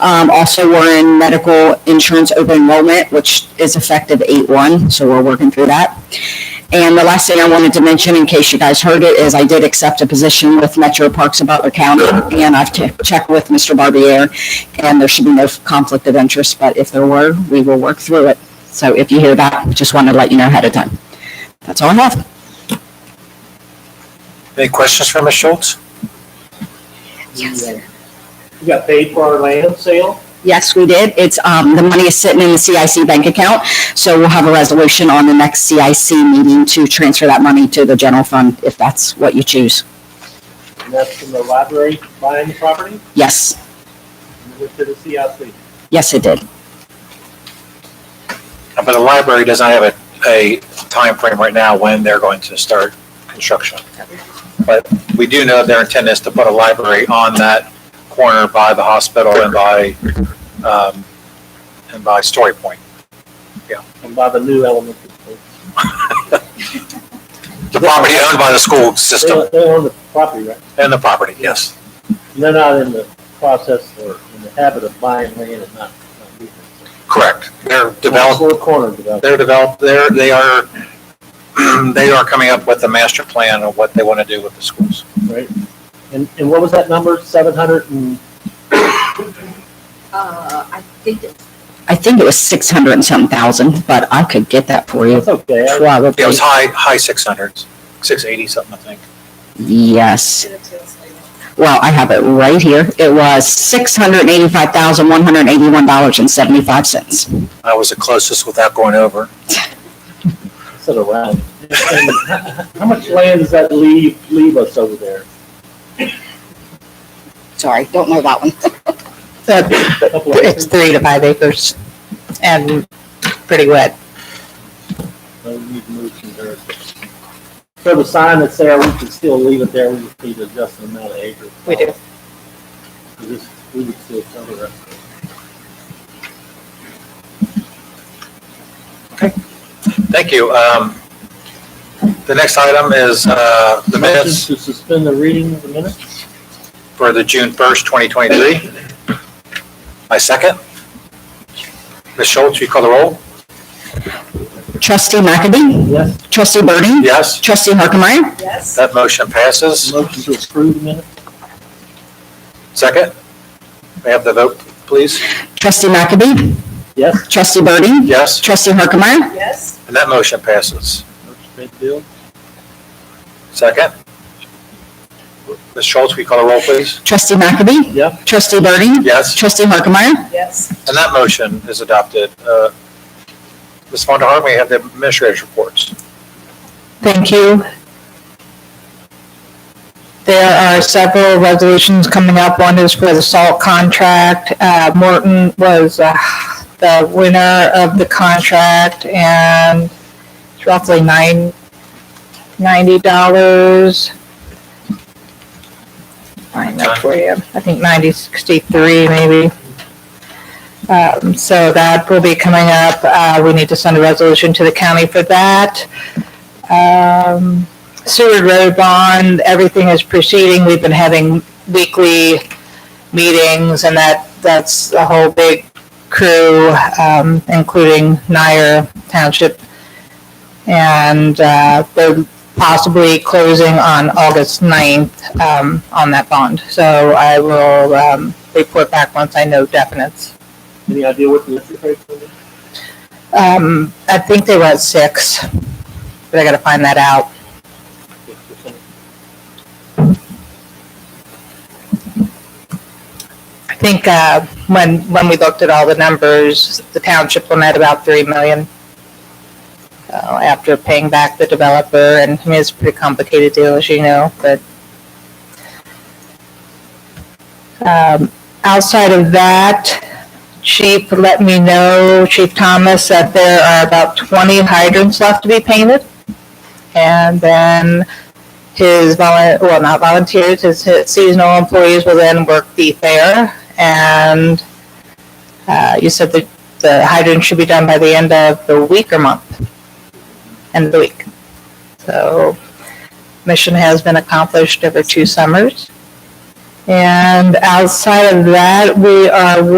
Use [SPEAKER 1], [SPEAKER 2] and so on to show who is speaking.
[SPEAKER 1] Um, also, we're in medical insurance open enrollment, which is effective eight one, so we're working through that. And the last thing I wanted to mention, in case you guys heard it, is I did accept a position with Metro Parks in Butler County, and I've che- checked with Mr. Barbier, and there should be no conflict of interest, but if there were, we will work through it. So if you hear that, just wanted to let you know ahead of time. That's all I have.
[SPEAKER 2] Any questions for Ms. Schultz?
[SPEAKER 1] Yes.
[SPEAKER 3] We got paid for our land sale?
[SPEAKER 1] Yes, we did. It's, um, the money is sitting in the CIC bank account, so we'll have a resolution on the next CIC meeting to transfer that money to the general fund, if that's what you choose.
[SPEAKER 3] And that's from the library buying the property?
[SPEAKER 1] Yes,
[SPEAKER 3] And it went to the CIC.
[SPEAKER 1] yes, it did.
[SPEAKER 2] But the library doesn't have a, a timeframe right now when they're going to start construction. But we do know their intent is to put a library on that corner by the hospital and by, um, and by Story Point.
[SPEAKER 3] And by the new elementary school.
[SPEAKER 2] The property owned by the school system
[SPEAKER 3] They, they own the property, right?
[SPEAKER 2] and the property, yes.
[SPEAKER 3] They're not in the process or in the habit of buying land and not. not using it.
[SPEAKER 2] Correct. They're
[SPEAKER 3] It's
[SPEAKER 2] developed,
[SPEAKER 3] a Corner development.
[SPEAKER 2] they're developed, they're, they are, they are coming up with a master plan of what they want to do with the schools.
[SPEAKER 3] right? And, and what was that number? Seven hundred and,
[SPEAKER 4] Uh, I think it's
[SPEAKER 1] I think it was six hundred and something thousand, but I could get that for you.
[SPEAKER 3] that's okay. I-
[SPEAKER 1] Probably.
[SPEAKER 2] It was high, high six hundreds, six eighty something, I think.
[SPEAKER 1] Yes.
[SPEAKER 4] gonna tell us later.
[SPEAKER 1] Well, I have it right here. It was six hundred and eighty-five thousand, one hundred and eighty-one dollars and seventy-five cents.
[SPEAKER 2] I was the closest without going over.
[SPEAKER 3] Sit around. And How much land does that leave, leave us over there?
[SPEAKER 1] Sorry, don't know that one.
[SPEAKER 5] The-
[SPEAKER 3] Couple of
[SPEAKER 5] It's
[SPEAKER 3] acres?
[SPEAKER 5] three to five acres and pretty wet.
[SPEAKER 3] So we need to move some dirt. So the sign that's there, we can still leave it there, we just need to adjust the amount of acres.
[SPEAKER 5] We do.
[SPEAKER 3] Because this- We would still cover it.
[SPEAKER 2] Thank you. Um, the next item is, uh, the minutes
[SPEAKER 3] Motion To suspend the reading of the minutes?
[SPEAKER 2] for the June first, twenty twenty-three. My second. Ms. Schultz, you call the roll?
[SPEAKER 1] Trustee McAdie?
[SPEAKER 3] Yes.
[SPEAKER 1] Trustee Burden?
[SPEAKER 2] Yes,
[SPEAKER 1] Trustee Harkemaier?
[SPEAKER 4] Yes,
[SPEAKER 2] that motion passes.
[SPEAKER 3] Motion to approve the minutes?
[SPEAKER 2] Second. May I have the vote, please?
[SPEAKER 1] Trustee McAdie?
[SPEAKER 3] Yes.
[SPEAKER 1] Trustee Burden?
[SPEAKER 2] Yes,
[SPEAKER 1] Trustee Harkemaier?
[SPEAKER 4] yes,
[SPEAKER 2] and that motion passes.
[SPEAKER 3] Motion to pay the bill?
[SPEAKER 2] Second. Ms. Schultz, will you call the roll, please?
[SPEAKER 1] Trustee McAdie?
[SPEAKER 3] Yeah.
[SPEAKER 1] Trustee Burden?
[SPEAKER 2] Yes.
[SPEAKER 1] Trustee Harkemaier?
[SPEAKER 4] yes.
[SPEAKER 2] And that motion is adopted. Uh, Ms. Von der Hart, we have the administrator's reports.
[SPEAKER 5] Thank you. There are several resolutions coming up. One is for the salt contract. Uh, Morton was uh, the winner of the contract and it's roughly nine, ninety dollars. Find that for you. I think ninety sixty-three maybe. Um, so that will be coming up. Uh, we need to send a resolution to the county for that. Um, Seward Road bond, everything is proceeding. We've been having weekly meetings and that, that's a whole big crew, um, including Nyer Township. And, uh, they're possibly closing on August 9th, um, on that bond. So I will, um, report back once I know definites.
[SPEAKER 3] Any idea what the interest rate is?
[SPEAKER 5] Um, I think they were at six, but I gotta find that out.
[SPEAKER 3] Six percent.
[SPEAKER 5] I think uh, when, when we looked at all the numbers, the township will net about 3 million uh, after paying back the developer, and I mean, it's a pretty complicated deal, as you know, but um, outside of that, Chief let me know, Chief Thomas, that there are about 20 hydrants left to be painted, and then his volun, well, not volunteers, his his seasonal employees will then work the fair. And uh, you said that the hydrant should be done by the end of the week or month, end of the week. So mission has been accomplished over two summers. And outside of that, we are